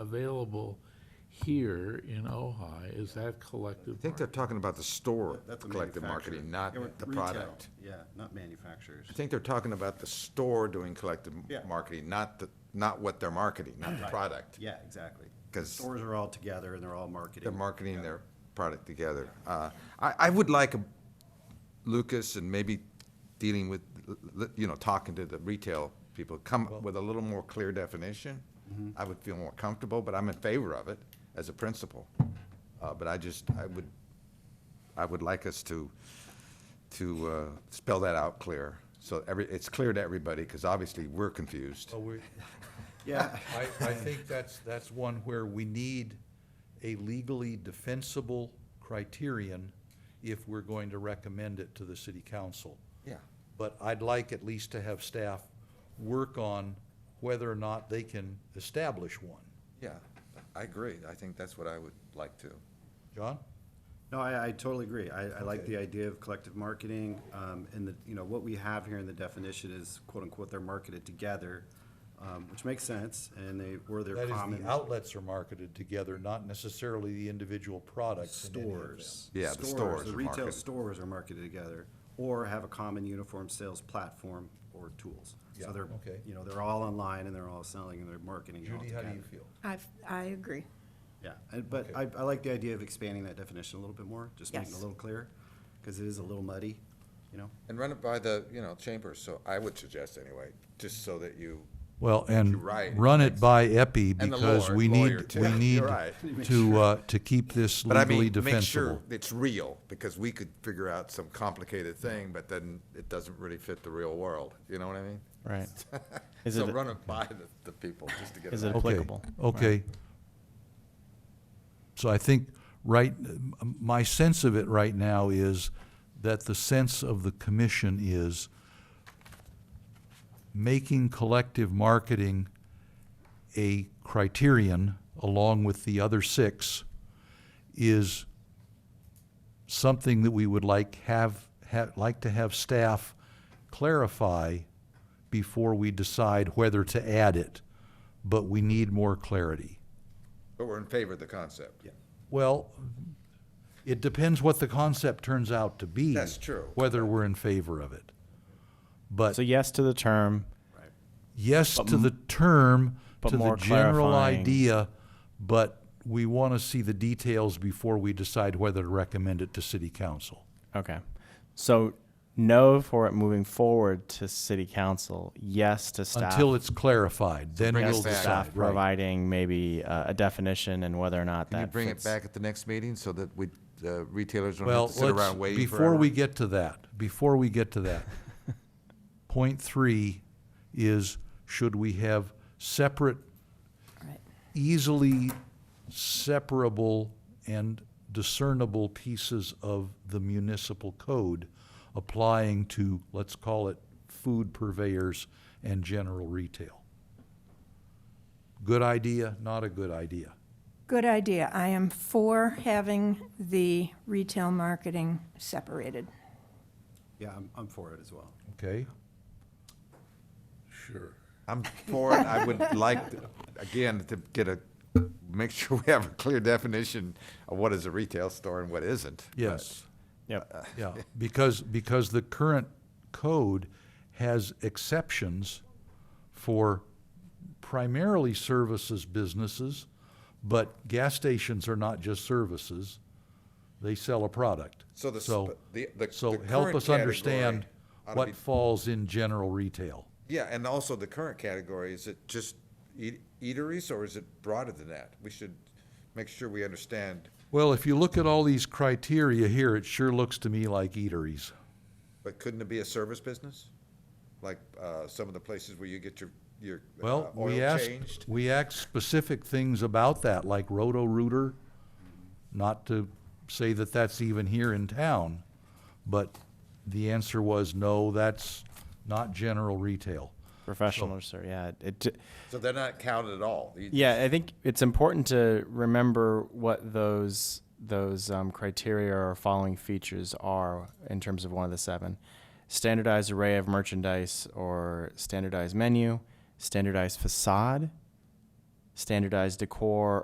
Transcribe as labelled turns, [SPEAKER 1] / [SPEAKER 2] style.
[SPEAKER 1] available here in Ojai, is that collective
[SPEAKER 2] I think they're
[SPEAKER 1] bargaining?
[SPEAKER 2] talking about the store
[SPEAKER 3] That's a
[SPEAKER 2] collective
[SPEAKER 3] manufacturer.
[SPEAKER 2] marketing, not
[SPEAKER 3] Yeah, with
[SPEAKER 2] the
[SPEAKER 3] retail,
[SPEAKER 2] product.
[SPEAKER 3] Yeah, not manufacturers.
[SPEAKER 2] I think they're talking about the store doing collective
[SPEAKER 3] Yeah.
[SPEAKER 2] marketing, not the, not what they're marketing, not the
[SPEAKER 3] Right.
[SPEAKER 2] product.
[SPEAKER 3] Yeah, exactly.
[SPEAKER 2] 'Cause-
[SPEAKER 3] Stores are all together and they're all marketing.
[SPEAKER 2] They're marketing their product together. Uh, I, I would like a- Lucas and maybe dealing with, l- l- you know, talking to the retail people, come up with a little more clear definition. I would feel more comfortable, but I'm in favor of it as a principle. Uh, But I just, I would, I would like us to, to uh, spell that out clear. So every, it's clear to everybody, because obviously we're confused.
[SPEAKER 4] Well, we,
[SPEAKER 3] Yeah,
[SPEAKER 4] I, I think that's, that's one where we need a legally defensible criterion if we're going to recommend it to the city council.
[SPEAKER 2] Yeah.
[SPEAKER 4] But I'd like at least to have staff work on whether or not they can establish one.
[SPEAKER 2] Yeah, I agree. I think that's what I would like to.
[SPEAKER 4] John?
[SPEAKER 3] no, I, I totally agree. I, I like
[SPEAKER 4] Okay.
[SPEAKER 3] the idea of collective marketing, um, and the, you know, what we have here in the definition is quote unquote, they're marketed together, um, which makes sense, and they, were their
[SPEAKER 4] That is,
[SPEAKER 3] common.
[SPEAKER 4] the outlets are marketed together, not necessarily the individual products in any of them.
[SPEAKER 3] Stores.
[SPEAKER 2] Yeah, the stores
[SPEAKER 3] The
[SPEAKER 2] are
[SPEAKER 3] retail
[SPEAKER 2] marketed.
[SPEAKER 3] stores are marketed together, or have a common uniform sales platform or tools.
[SPEAKER 4] Yeah,
[SPEAKER 3] So they're,
[SPEAKER 4] okay.
[SPEAKER 3] you know, they're all online and they're all selling and they're marketing it all
[SPEAKER 4] Judy, how
[SPEAKER 3] together.
[SPEAKER 4] do you feel?
[SPEAKER 5] I, I agree.
[SPEAKER 3] Yeah, and- but I, I like the idea of expanding that definition a little bit more, just making it a
[SPEAKER 5] Yes.
[SPEAKER 3] little clearer, because it is a little muddy, you know?
[SPEAKER 2] And run it by the, you know, chambers, so I would suggest anyway, just so that you,
[SPEAKER 4] Well, and
[SPEAKER 2] right.
[SPEAKER 4] run it by EPI
[SPEAKER 2] And the
[SPEAKER 4] because
[SPEAKER 2] lawyer-
[SPEAKER 4] we
[SPEAKER 2] lawyer,
[SPEAKER 4] need,
[SPEAKER 2] too.
[SPEAKER 4] we
[SPEAKER 2] You're
[SPEAKER 4] need
[SPEAKER 2] right.
[SPEAKER 4] to, uh, to keep this
[SPEAKER 2] but I
[SPEAKER 4] legally
[SPEAKER 2] mean,
[SPEAKER 4] defensible.
[SPEAKER 2] make sure it's real, because we could figure out some complicated thing, but then it doesn't really fit the real world, you know what I mean?
[SPEAKER 6] Right. Is
[SPEAKER 2] So
[SPEAKER 6] it-
[SPEAKER 2] run it by the, the people, just to get
[SPEAKER 6] Is
[SPEAKER 2] it
[SPEAKER 6] it-
[SPEAKER 2] out.
[SPEAKER 4] Okay,
[SPEAKER 6] applicable, right.
[SPEAKER 4] Okay. So I think, right, m- my sense of it right now is that the sense of the commission is making collective marketing a criterion along with the other six is something that we would like have, ha like to have staff clarify before we decide whether to add it, but we need more clarity.
[SPEAKER 2] But we're in favor of the concept.
[SPEAKER 3] Yeah.
[SPEAKER 4] Well, it depends what the concept turns out to be.
[SPEAKER 2] That's true.
[SPEAKER 4] Whether we're in favor of it. But
[SPEAKER 6] So yes to the term.
[SPEAKER 4] yes to the term,
[SPEAKER 6] but
[SPEAKER 4] to the
[SPEAKER 6] more
[SPEAKER 4] general
[SPEAKER 6] clarifying.
[SPEAKER 4] idea, but we want to see the details before we decide whether to recommend it to city council.
[SPEAKER 6] Okay. So no for it moving forward to city council. Yes to staff.
[SPEAKER 4] Until it's clarified, then
[SPEAKER 2] bring
[SPEAKER 4] we'll
[SPEAKER 2] us back.
[SPEAKER 4] decide,
[SPEAKER 6] staff
[SPEAKER 4] right?
[SPEAKER 6] providing maybe uh, a definition and whether or not
[SPEAKER 2] Can
[SPEAKER 6] that
[SPEAKER 2] you bring it
[SPEAKER 6] fits.
[SPEAKER 2] back at the next meeting, so that we, the retailers don't
[SPEAKER 4] Well,
[SPEAKER 2] have to sit
[SPEAKER 4] let's,
[SPEAKER 2] around waiting
[SPEAKER 4] before we
[SPEAKER 2] forever?
[SPEAKER 4] get to that, before we get to that, point three is, should we have separate,
[SPEAKER 5] Right.
[SPEAKER 4] easily separable and discernible pieces of the municipal code applying to, let's call it, food purveyors and general retail? Good idea, not a good idea?
[SPEAKER 5] Good idea. I am for having the retail marketing separated.
[SPEAKER 3] Yeah, I'm, I'm for it as well.
[SPEAKER 4] Okay?
[SPEAKER 1] Sure.
[SPEAKER 2] I'm for it, I would like, to- again, to get a, make sure we have a clear definition of what is a retail store and what isn't. but-
[SPEAKER 4] Yes.
[SPEAKER 2] uh,
[SPEAKER 6] Yep.
[SPEAKER 4] Yeah, because, because the current code has exceptions for primarily services businesses, but gas stations are not just services. They sell a product.
[SPEAKER 2] So the sp-
[SPEAKER 4] So,
[SPEAKER 2] the- the-
[SPEAKER 4] so
[SPEAKER 2] the
[SPEAKER 4] help
[SPEAKER 2] current
[SPEAKER 4] us understand
[SPEAKER 2] category ought to be-
[SPEAKER 4] what falls in general retail.
[SPEAKER 2] Yeah, and also the current category, is it just eat- eateries or is it broader than that? We should make sure we understand,
[SPEAKER 4] Well, if you look at all these criteria here, it sure looks to me like eateries.
[SPEAKER 2] but couldn't it be a service business? Like, uh, some of the places where you get your, your uh,
[SPEAKER 4] Well, we
[SPEAKER 2] oil
[SPEAKER 4] asked,
[SPEAKER 2] changed?
[SPEAKER 4] we asked specific things about that, like Roto-Rooter, not to say that that's even here in town, but the answer was, no, that's not general retail.
[SPEAKER 6] Professional or sir. Yeah. It, it
[SPEAKER 2] So they're not counted at all? You-
[SPEAKER 6] Yeah, I think it's important to remember what those those um, criteria or following features are in terms of one of the seven: standardized array of merchandise or standardized menu, standardized facade, standardized decor